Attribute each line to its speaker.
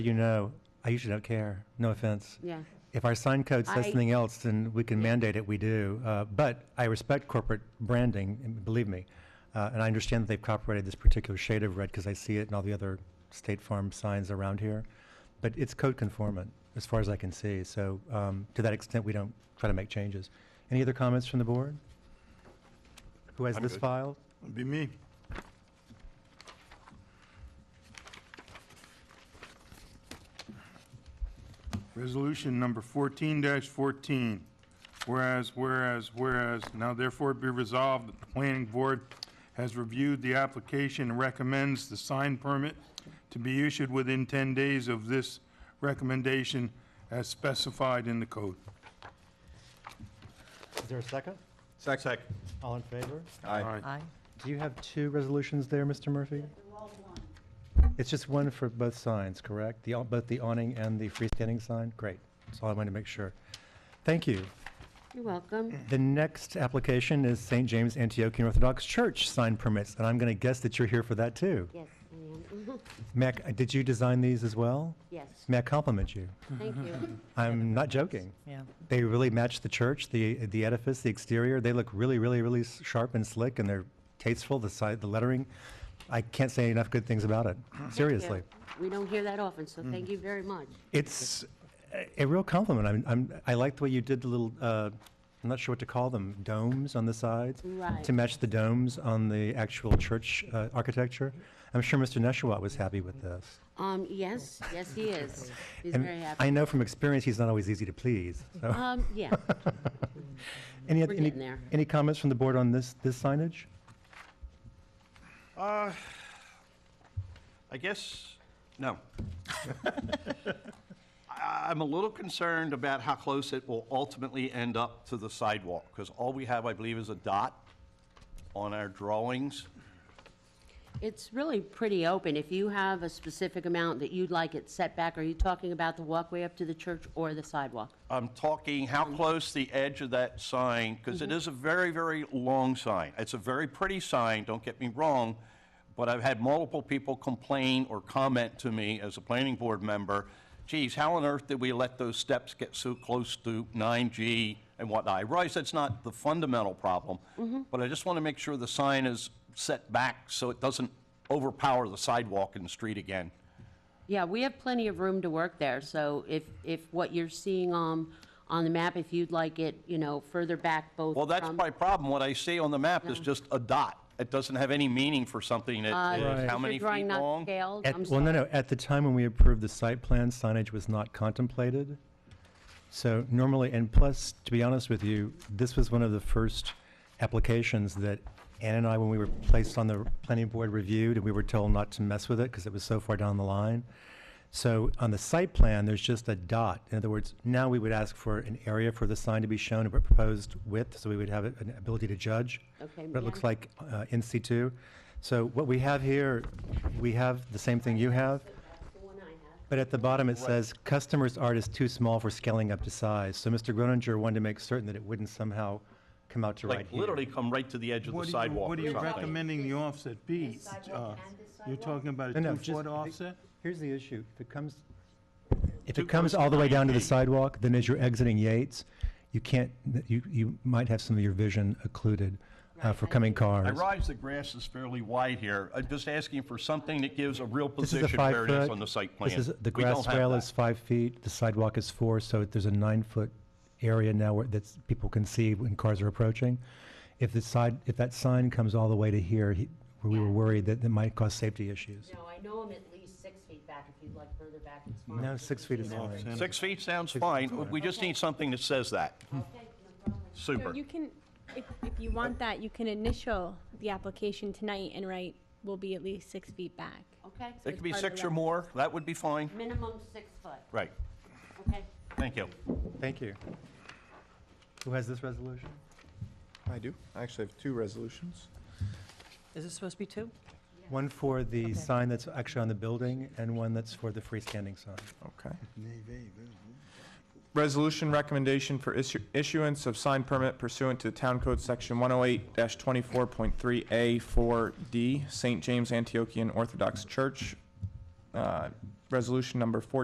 Speaker 1: you know, I usually don't care, no offense.
Speaker 2: Yeah,
Speaker 1: If our sign code says
Speaker 2: I-
Speaker 1: something else, then we can mandate it, we do. Uh, But I respect corporate branding, and believe me. Uh, And I understand that they've copyrighted this particular shade of red because I see it in all the other State Farm signs around here. But it's code conformant, as far as I can see. So um, to that extent, we don't try to make changes. Any other comments from the board? Who has
Speaker 3: I'm
Speaker 1: this
Speaker 3: good.
Speaker 1: file?
Speaker 3: It'd Be me. Resolution number fourteen fourteen. Whereas, whereas, whereas, now therefore be resolved that the planning board has reviewed the application and recommends the sign permit to be issued within ten days of this recommendation as specified in the code.
Speaker 1: Is there a second?
Speaker 4: Second.
Speaker 1: All in favor?
Speaker 4: Aye.
Speaker 5: Aye.
Speaker 1: Do you have two resolutions there, Mr. Murphy? It's just one for both signs, correct? The, au- both the awning and the freestanding sign? Great. That's all I wanted to make sure. Thank you.
Speaker 2: you're welcome.
Speaker 1: The next application is St. James Antiochian Orthodox Church sign permits, and I'm going to guess that you're here for that too.
Speaker 2: Yes, I am.
Speaker 1: May I c- uh, did you design these as well?
Speaker 2: Yes,
Speaker 1: May I compliment you?
Speaker 2: thank you.
Speaker 1: I'm not joking.
Speaker 5: Yeah.
Speaker 1: They really match the church, the, the edifice, the exterior. They look really, really, really s- sharp and slick, and they're tasteful, the side, the lettering. I can't say enough good things about it, seriously.
Speaker 2: Yeah, We don't hear that often, so
Speaker 1: Mm.
Speaker 2: thank you very much.
Speaker 1: It's a- a real compliment. I'm, I'm, I like the way you did the little, uh, I'm not sure what to call them, domes on the sides?
Speaker 2: Right.
Speaker 1: To match the domes on the actual church uh, architecture. I'm sure Mr. Neshawat was happy with this.
Speaker 2: Um, yes, yes, he is. He's
Speaker 1: And
Speaker 2: very
Speaker 1: I
Speaker 2: happy.
Speaker 1: know from experience, he's not always easy to please, so.
Speaker 2: Um, yeah,
Speaker 1: Any,
Speaker 2: We're
Speaker 1: any,
Speaker 2: getting there.
Speaker 1: any comments from the board on this, this signage?
Speaker 4: Uh, I guess, no. I- I'm a little concerned about how close it will ultimately end up to the sidewalk, because all we have, I believe, is a dot on our drawings.
Speaker 2: it's really pretty open. If you have a specific amount that you'd like it set back, are you talking about the walkway up to the church or the sidewalk?
Speaker 4: I'm talking how close the edge of that sign, because it is a very, very long sign. It's a very pretty sign, don't get me wrong, but I've had multiple people complain or comment to me as a planning board member, geez, how on earth did we let those steps get so close to 9G and whatnot? I realize that's not the fundamental problem, but I just want to make sure the sign is set back so it doesn't overpower the sidewalk and the street again.
Speaker 2: Yeah, we have plenty of room to work there, so if, if what you're seeing, um, on the map, if you'd like it, you know, further back both
Speaker 4: Well, that's
Speaker 2: from-
Speaker 4: my problem. What I see on the map is just a dot. It doesn't have any meaning for something that
Speaker 1: Right.
Speaker 4: is how
Speaker 2: Is your
Speaker 4: many
Speaker 2: drawing
Speaker 4: feet
Speaker 2: not
Speaker 4: long.
Speaker 2: scaled?
Speaker 1: At-
Speaker 2: I'm
Speaker 1: Well, no,
Speaker 2: sorry.
Speaker 1: no, at the time when we approved the site plan, signage was not contemplated. So normally, and plus, to be honest with you, this was one of the first applications that Ann and I, when we were placed on the planning board, reviewed, and we were told not to mess with it because it was so far down the line. So on the site plan, there's just a dot. In other words, now we would ask for an area for the sign to be shown, a proposed width, so we would have an ability to judge.
Speaker 2: Okay,
Speaker 1: What it looks
Speaker 2: yeah.
Speaker 1: like uh, in C2. So what we have here, we have the same thing you have,
Speaker 2: That's the one I have.
Speaker 1: but at the bottom it says, "Customer's art is too small for scaling up to size." So Mr. Groninger wanted to make certain that it wouldn't somehow come out to right
Speaker 4: Like,
Speaker 1: here.
Speaker 4: literally come right to the edge of the
Speaker 3: What are you,
Speaker 4: sidewalk
Speaker 3: what are
Speaker 4: or
Speaker 3: you
Speaker 4: something.
Speaker 3: recommending the offset be? Uh, You're talking about
Speaker 1: No,
Speaker 3: a
Speaker 1: no, just-
Speaker 3: two-foot offset?
Speaker 1: Here's the issue, if it comes, if
Speaker 4: Too
Speaker 1: it comes
Speaker 4: close to
Speaker 1: all the way down to the
Speaker 4: 9G.
Speaker 1: sidewalk, then as you're exiting Yates, you can't, you, you might have some of your vision occluded uh, for coming cars.
Speaker 4: I realize the grass is fairly wide here. I'm just asking for something that gives a real
Speaker 1: This is a
Speaker 4: position
Speaker 1: five
Speaker 4: where it is
Speaker 1: foot.
Speaker 4: on the site plan.
Speaker 1: This is, the
Speaker 4: We don't
Speaker 1: grass
Speaker 4: have
Speaker 1: rail
Speaker 4: that.
Speaker 1: is five feet, the sidewalk is four, so there's a nine-foot area now where that's, people can see when cars are approaching. If the side, if that sign comes all the way to here, he- where we were
Speaker 2: Yeah.
Speaker 1: worried that it might cause safety issues.
Speaker 2: No, I know I'm at least six feet back, if you'd like further back, it's fine.
Speaker 1: No, six feet is
Speaker 3: Off
Speaker 1: fine.
Speaker 3: center.
Speaker 4: Six feet sounds fine. We just need something that says that.
Speaker 2: Okay, no problem.
Speaker 4: Super.
Speaker 6: So you can, if, if you want that, you can initial the application tonight and write, will be at least six feet back.
Speaker 2: Okay,
Speaker 4: It could be
Speaker 6: part of
Speaker 4: six
Speaker 6: the
Speaker 4: or
Speaker 6: law.
Speaker 4: more. That would be fine.
Speaker 2: minimum six foot,
Speaker 4: Right.
Speaker 2: okay?
Speaker 4: Thank you.
Speaker 1: Thank you. Who has this resolution?
Speaker 7: I do. I actually have two resolutions.
Speaker 5: Is it supposed to be two?
Speaker 1: One for the sign that's actually on the building, and one that's for the freestanding sign.
Speaker 7: Okay. Resolution recommendation for issu- issuance of sign permit pursuant to Town Code Section 108-24.3A4D, St. James Antiochian Orthodox Church, uh, resolution number fourteen